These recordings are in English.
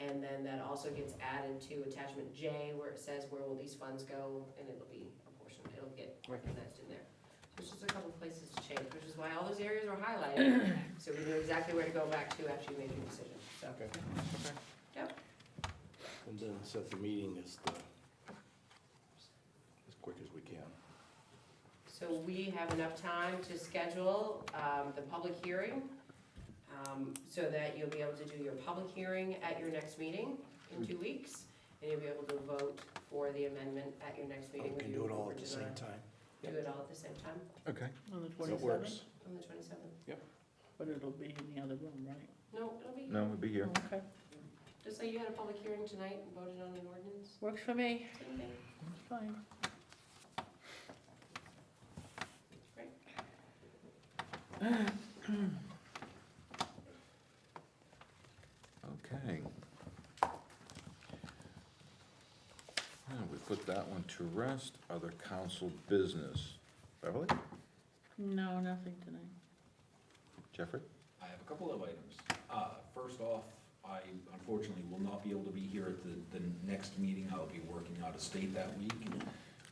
then that also gets added to attachment J where it says where will these funds go, and it'll be apportioned, it'll get organized in there. So it's just a couple places to change, which is why all those areas are highlighted, so we know exactly where to go back to after you make your decision, so. Okay. Yep. And then set the meeting as the, as quick as we can. So we have enough time to schedule um, the public hearing, um, so that you'll be able to do your public hearing at your next meeting in two weeks, and you'll be able to vote for the amendment at your next meeting. We can whether do you it all vote at the or same not. time. Do it all at the same time Okay. On the That works. twenty-seventh, on the twenty-seventh? but it'll be in the other room, right? No, it'll be, No, we'll be here. Okay, just like you had a public hearing tonight and voted on an ordinance, works for me, same thing. it's fine. Okay. Well, we put that one to rest. Other council business. Beverly? No, nothing tonight. Jeffrey? I have a couple of items. Uh, First off, I unfortunately will not be able to be here at the, the next meeting. I'll be working out of state that week.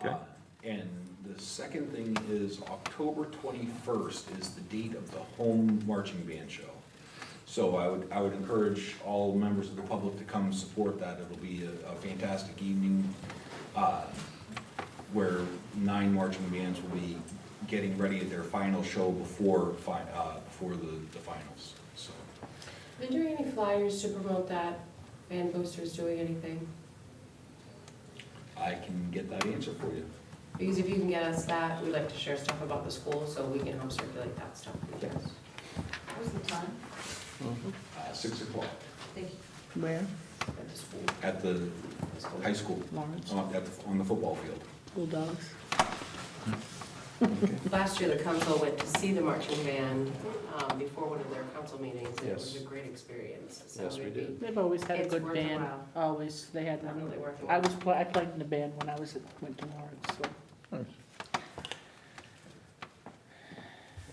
Okay. Uh, And the second thing is October twenty-first is the date of the home marching band show. So I would, I would encourage all members of the public to come support that. It'll be a a fantastic evening. Uh, where nine marching bands will be getting ready at their final show before, fi- uh, before the, the finals, so. Been doing any flyers to promote that, Van Boosters doing anything? I can get that answer for you. Because if you can get us that, we like to share stuff about the school, so we can help circulate that stuff. What was the time? Uh, six o'clock Thank you. Where? At the school, at the the school. high school, Lawrence, on, at, the- on the football field. Bulldogs. Last year, the council went to see the marching band um, before one of their council meetings, and it was a Yes. great experience. So Yes, we it'd be- did. They've always had a It's good worth a band, while. always, they had, Not really worth it. I was, pla- I played in the band when I was, at went to Lawrence, so.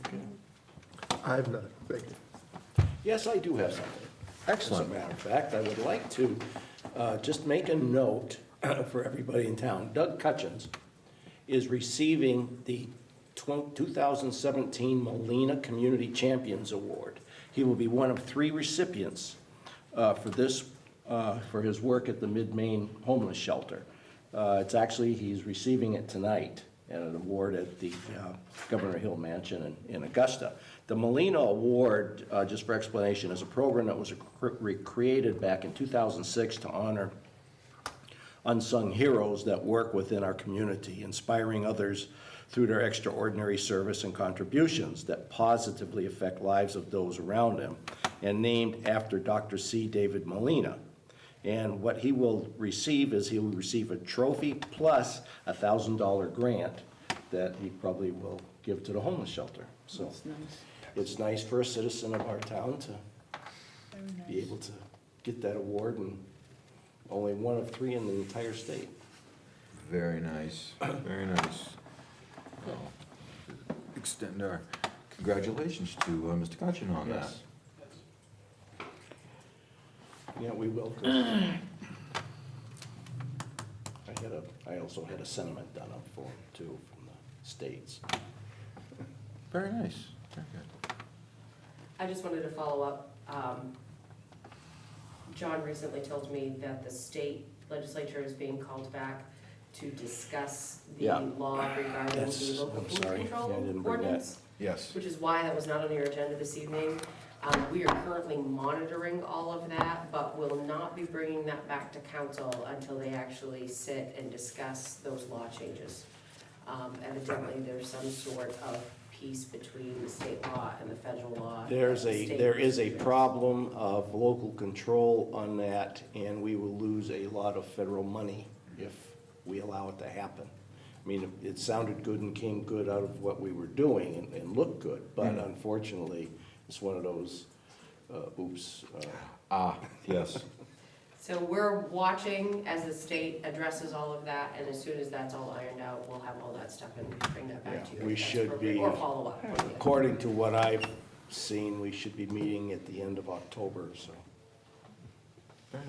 Okay. I have none, thank you. Yes, I do have something. As Excellent. a matter of fact, I would like to uh, just make a note for everybody in town. Doug Cutchins is receiving the twen- 2017 Molina Community Champions Award. He will be one of three recipients uh, for this, uh, for his work at the Mid-Maine Homeless Shelter. Uh, It's actually, he's receiving it tonight at an award at the uh, Governor Hill Mansion in in Augusta. The Molina Award, uh, just for explanation, is a program that was cre- created back in 2006 to honor unsung heroes that work within our community, inspiring others through their extraordinary service and contributions that positively affect lives of those around them, and named after Dr. C. David Molina. And what he will receive is he will receive a trophy plus a $1,000 grant that he probably will give to the homeless shelter. So That's nice. it's nice for a citizen of our town to be able to get that award, and only one of three in the entire state. Very nice, very nice. Well, Extend our congratulations to uh, Mr. Gudgeon on that. Yes. Yeah, we will. I had a, I also had a sentiment done up for him too, from the states. Very nice, very good. I just wanted to follow up. um, John recently told me that the state legislature is being called back to discuss the Yeah. law regarding the That's- local I'm food sorry. Yeah, I didn't control bring that. ordinance. Yes. which is why that was not on your agenda this evening. Um, We are currently monitoring all of that, but will not be bringing that back to council until they actually sit and discuss those law changes. Um, Evidently, there's some sort of peace between the state law and the federal law. There's that the a, state- there is a problem of local control on that, and we will lose a lot of federal money if we allow it to happen. I mean, it sounded good and came good out of what we were doing and, and looked good, but Mm. unfortunately, it's one of those, uh, oops. uh, Ah, yes. So we're watching as the state addresses all of that, and as soon as that's all ironed out, we'll have all that stuff and bring that back to you. Yeah, we if that's should appropriate, be- Or follow up. According to what I've seen, we should be meeting at the end of October, so